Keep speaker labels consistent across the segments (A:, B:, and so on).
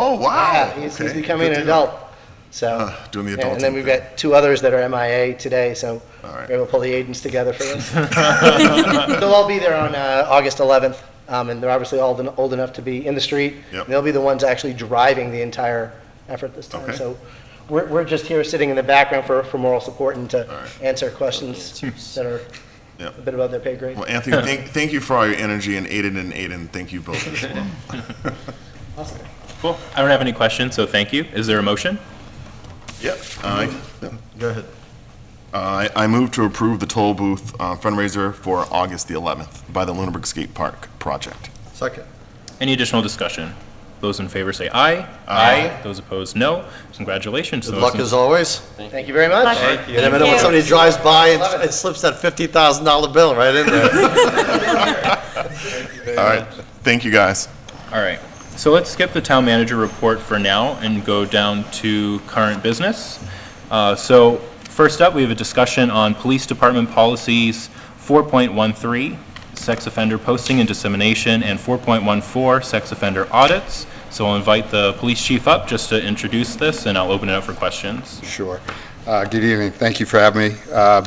A: yeah, he's, he's
B: Oh, Okay,
A: becoming
B: good
A: an
B: to know.
A: adult, so.
B: Ah, doing the
A: yeah,
B: adulting
A: And then we've
B: thing.
A: got two others that are MIA today, so
B: All right.
A: we're able to pull the agents together for this. They'll all be there on, uh, August 11th, um, and they're obviously all en- old enough to be in the street.
B: Yep.
A: They'll be the ones actually driving the entire effort this time.
B: Okay.
A: So we're, we're just here sitting in the background for, for moral support and to
B: right.
A: answer questions that are
B: Yep.
A: a bit above their pay grade.
B: Well, Anthony, thank, thank you for all your energy, and Aiden and Aiden, thank you both as well.
C: Cool. I don't have any questions, so thank you. Is there a motion?
B: Yep. Go ahead. Uh, I, I move to approve the toll booth uh, fundraiser for August the 11th by the Lunenburg Skate Park project.
D: Second.
C: Any additional discussion? Those in favor say aye.
B: Aye.
C: Those opposed, no. Congratulations. to
D: Good
C: those
D: luck
C: in-
D: as always.
A: Thank you very much.
D: You never know when somebody drives by and and slips that $50,000 bill right in there.
B: All right, thank you, guys.
C: All right. So let's skip the town manager report for now and go down to current business. Uh, So first up, we have a discussion on police department policies 4.13, sex offender posting and dissemination, and 4.14, sex offender audits. So I'll invite the police chief up just to introduce this, and I'll open it up for questions.
E: Sure. Uh, Good evening. Thank you for having me. Uh,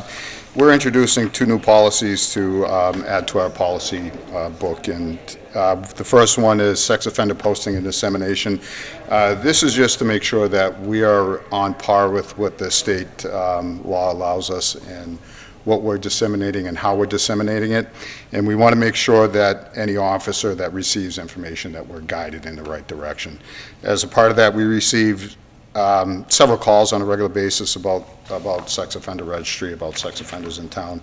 E: We're introducing two new policies to um, add to our policy uh, book, and uh, the first one is sex offender posting and dissemination. Uh, This is just to make sure that we are on par with what the state um, law allows us and what we're disseminating and how we're disseminating it. And we want to make sure that any officer that receives information, that we're guided in the right direction. As a part of that, we received um, several calls on a regular basis about, about sex offender registry, about sex offenders in town.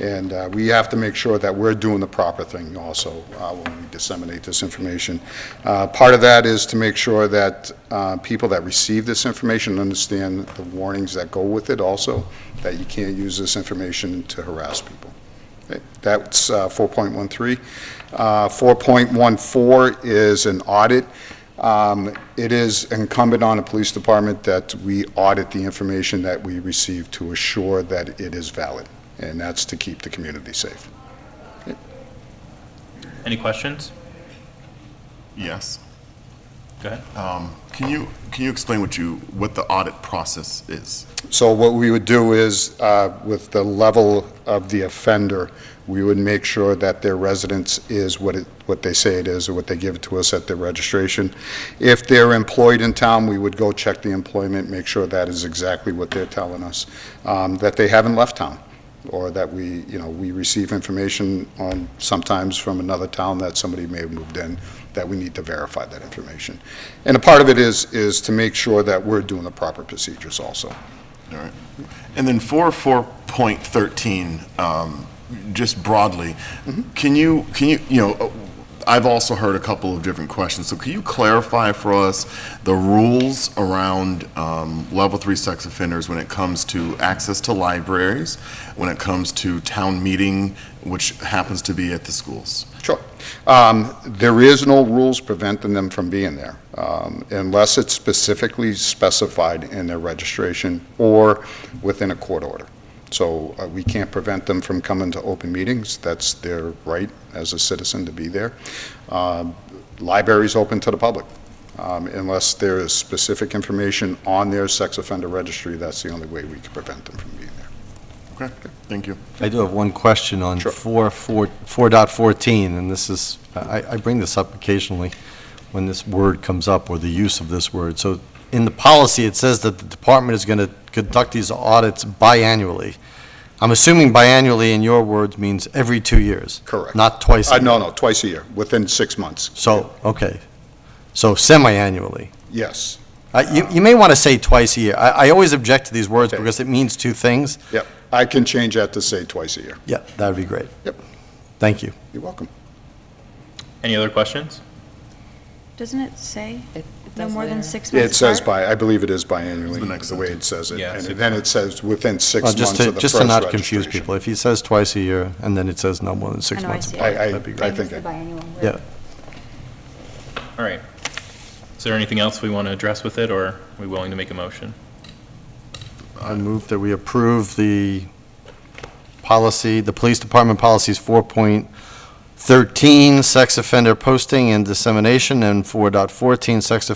E: And uh, we have to make sure that we're doing the proper thing also uh, when we disseminate this information. Uh, Part of that is to make sure that uh, people that receive this information understand the warnings that go with it also, that you can't use this information to harass people. Okay, That's uh, 4.13. Uh, 4.14 is an audit. Um, It is incumbent on the police department that we audit the information that we receive to assure that it is valid, and that's to keep the community safe.
C: Any questions?
B: Yes.
C: Go ahead.
B: Can you, can you explain what you, what the audit process is?
E: So what we would do is, uh, with the level of the offender, we would make sure that their residence is what it, what they say it is, or what they give to us at their registration. If they're employed in town, we would go check the employment, make sure that is exactly what they're telling us, um, that they haven't left town, or that we, you know, we receive information on, sometimes from another town that somebody may have moved in, that we need to verify that information. And a part of it is, is to make sure that we're doing the proper procedures also.
B: All right. And then for 4.13, um, just broadly, can you, can you, you know, uh, I've also heard a couple of different questions, so can you clarify for us the rules around um, level three sex offenders when it comes to access to libraries, when it comes to town meeting, which happens to be at the schools?
E: Sure. Um, There is no rules preventing them from being there, um, unless it's specifically specified in their registration or within a court order. So uh, we can't prevent them from coming to open meetings. That's their right as a citizen to be there. Um, Libraries open to the public, um, unless there is specific information on their sex offender registry. That's the only way we can prevent them from being there.
B: Okay, thank you.
D: I do have one question on
E: Sure.
D: 4, 4, 4.14, and this is, I, I bring this up occasionally when this word comes up, or the use of this word. So in the policy, it says that the department is going to conduct these audits biannually. I'm assuming biannually, in your words, means every two years?
E: Correct.
D: Not twice? a
E: Uh, No,
D: year.
E: no, twice a year, within six months.
D: So, okay. So semi-annually?
E: Yes.
D: Uh, You, you may want to say twice a year. I, I always object to these words because it means two things.
E: Yep, I can change that to say twice a year.
D: Yeah, that would be great.
E: Yep,
D: Thank you.
E: you're welcome.
C: Any other questions?
F: Doesn't it say
G: It
F: no
G: does
F: more than
G: there.
F: six months
E: It says
F: apart?
E: by, I believe it is
B: The
E: biannually,
B: next
E: the way it says it.
C: Yeah,
E: And
C: six
E: then it says within six
D: Well,
E: months
D: Oh, just
E: of the
D: to,
E: first
D: just to not confuse
E: registration.
D: people, if he says twice a year and then it says no more than six
F: Oh, I know, I
D: months
F: see it.
D: apart,
E: I- I-
D: that'd be
E: I
D: great.
E: think I-
D: Yeah.
C: All right. Is there anything else we want to address with it, or are we willing to make a motion?
D: I move that we approve the policy, the police department policies 4.13, sex offender posting and dissemination, and 4.14, sex offender